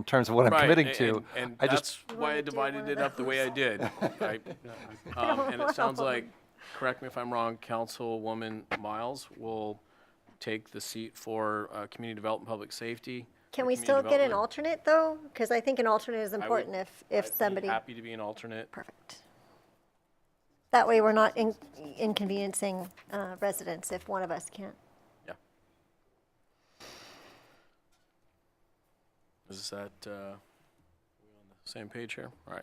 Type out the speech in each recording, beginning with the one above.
in terms of what I'm Right, committing and- to. And I and just, that's why I Wanna do divided one it of up the way I did. I- um, And it sounds like, correct me if I'm wrong, Councilwoman Miles will take the seat for uh, Community Development, Public Safety. Can or we community still get an development. alternate, though? Because I think an alternate is I would- important if, I'd if be somebody, Happy to be an alternate. perfect. That way, we're not in- inconveniencing uh, residents if one of us can't. Yeah. Is that, uh, we on the same page here? All right.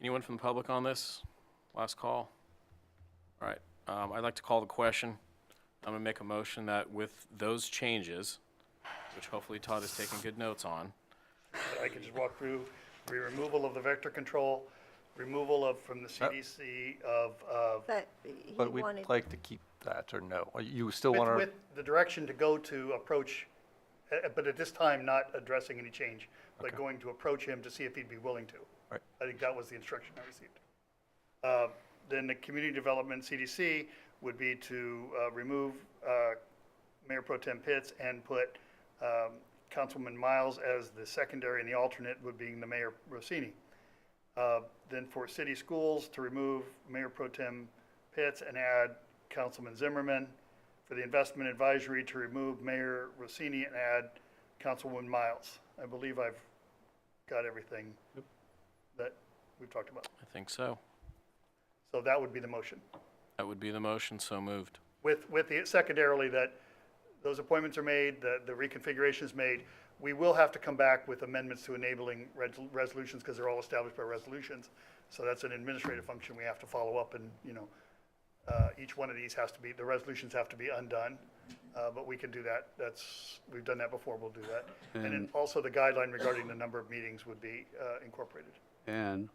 Anyone from the public on this? Last call? All right, um, I'd like to call the question. I'm gonna make a motion that with those changes, which hopefully Todd has taken good notes on, I can just walk through, the removal of the vector control, removal of, from the CDC of, of, But he but we'd wanted, like to keep that or no? Or You still with, want with the direction to go to approach, eh, eh, but at this time, not addressing any change, but going to approach him to see if he'd be willing to. Right. I think that was the instruction I received. Uh, Then the community development CDC would be to uh, remove uh, Mayor Pro Tem Pitts and put um, Councilman Miles as the secondary and the alternate would be the Mayor Rossini. Uh, Then for city schools, to remove Mayor Pro Tem Pitts and add Councilman Zimmerman. For the investment advisory, to remove Mayor Rossini and add Councilwoman Miles. I believe I've got everything that we've talked about. I think so. So that would be the motion, That would be the motion, so moved. with, with the, secondarily, that those appointments are made, the, the reconfiguration is made. We will have to come back with amendments to enabling res- resolutions, because they're all established by resolutions. So that's an administrative function we have to follow up, and, you know, uh, each one of these has to be, the resolutions have to be undone, uh, but we can do that. That's, we've done that before, we'll do that. And then also the guideline regarding the number of meetings would be uh, incorporated. And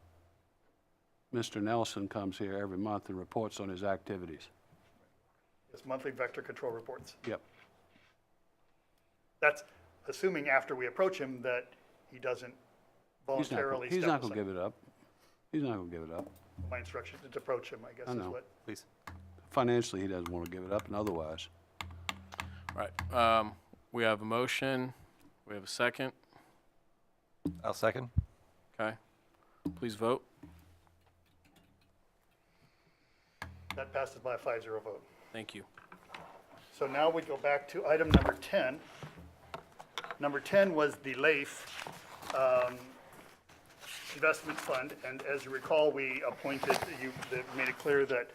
Mr. Nelson comes here every month and reports on his activities. It's monthly vector control reports. Yep. That's assuming after we approach him that he doesn't He's not gonna- voluntarily He's step not gonna aside. give it up. He's not gonna give it up. My instruction is to approach him, I guess I is know. what. please? Financially, he doesn't wanna give it up, and otherwise. All right, um, we have a motion, we have a second, I'll second. okay? Please vote. That passes by a five zero vote. Thank you. So now we go back to item number ten. Number ten was the LAIF, um, Investment Fund, and as you recall, we appointed, you, that made it clear that,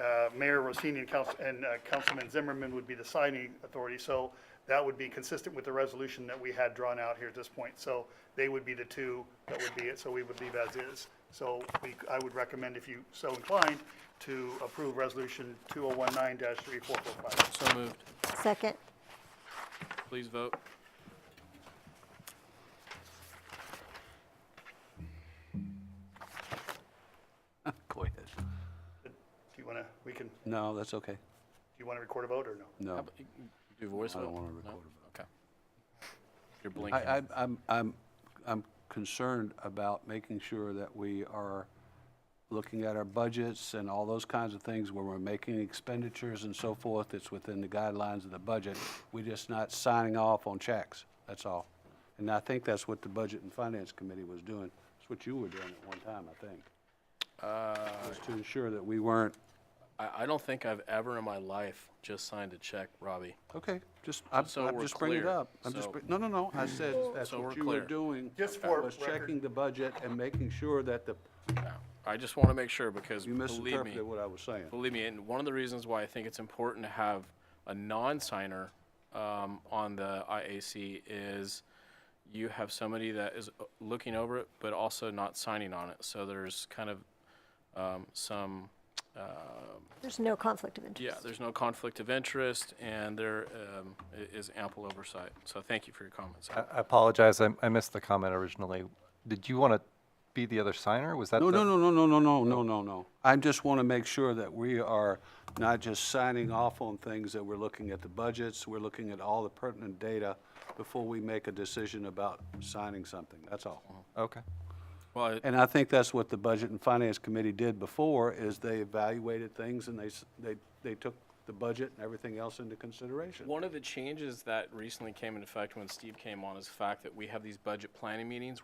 uh, Mayor Rossini and Council, and uh, Councilman Zimmerman would be the signing authority, so that would be consistent with the resolution that we had drawn out here at this point, so they would be the two, that would be it, so we would leave as is. So we, I would recommend, if you so inclined, to approve resolution two oh one nine three four four five. So moved. second, Please vote. Go ahead. Do you want to, we can, do No, that's okay. you want to record a vote or no? No, Do voice Um, I vote? don't wanna No? record it. Okay. You're blinking. I, I- I'm, I'm, I'm concerned about making sure that we are looking at our budgets and all those kinds of things where we're making expenditures and so forth. It's within the guidelines of the budget. We're just not signing off on checks, that's all. And I think that's what the Budget and Finance Committee was doing. It's what you were doing at one time, I think. Was to ensure that we weren't, I, I don't think I've ever in my life just signed a check, Robbie. okay, just, I'm, So I'm we're just bringing it clear. up. I'm just, So- bring- no, no, no, I said that's So we're what you were clear. doing. Mm-hmm. Just for Was record. checking the budget and making sure that the No. I just want to make sure because You believe me, misinterpreted what I was saying. believe me, and one of the reasons why I think it's important to have a non-signer um, on the IAC is you have somebody that is uh, looking over it but also not signing on it. So there's kind of um, some. Uh, there's no conflict of interest. Yeah, there's no conflict of interest, and there um, i- is ample oversight. So thank you for your comments. I I apologize, I I missed the comment originally. Did you want to be the other signer? Was that No, the? no, no, no, no, no, no, no, no, no. I just want to make sure that we are not just signing off on things, that we're looking at the budgets, we're looking at all the pertinent data before we make a decision about signing something, that's all. Okay, Well, I- And I think that's what the Budget and Finance Committee did before, is they evaluated things and they, s- they, they took the budget and everything else into consideration. One of the changes that recently came into effect when Steve came on is the fact that we have these budget planning meetings